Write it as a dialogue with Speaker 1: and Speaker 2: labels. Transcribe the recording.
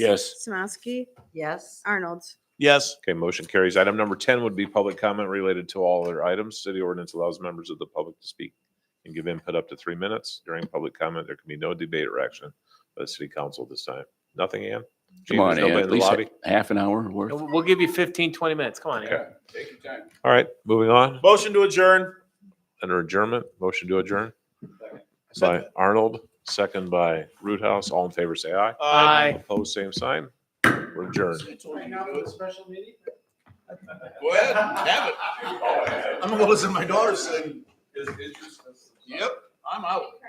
Speaker 1: Yes.
Speaker 2: Samansky,
Speaker 3: Yes.
Speaker 2: Arnold.
Speaker 4: Yes.
Speaker 1: Okay, motion carries. Item number ten would be public comment related to all other items. City ordinance allows members of the public to speak and give input up to three minutes. During public comment, there can be no debate or action by the city council at this time. Nothing, Ann? Gee,
Speaker 5: Come on,
Speaker 1: there's
Speaker 5: Ann,
Speaker 1: nobody
Speaker 5: at
Speaker 1: in the
Speaker 5: least
Speaker 1: lobby?
Speaker 5: ha- half an hour worth.
Speaker 6: We'll we'll give you 15, 20 minutes. Come on. Aaron.
Speaker 1: Okay. All right, moving on.
Speaker 4: Motion to adjourn.
Speaker 1: Under adjournment, motion to adjourn by Arnold, second by Root House. All in favor, say aye.
Speaker 4: Uh,
Speaker 6: Aye.
Speaker 1: Opposed, same sign. We're adjourned.
Speaker 7: Go ahead, have it. I'm gonna listen to my daughter sing. Yep, I'm out.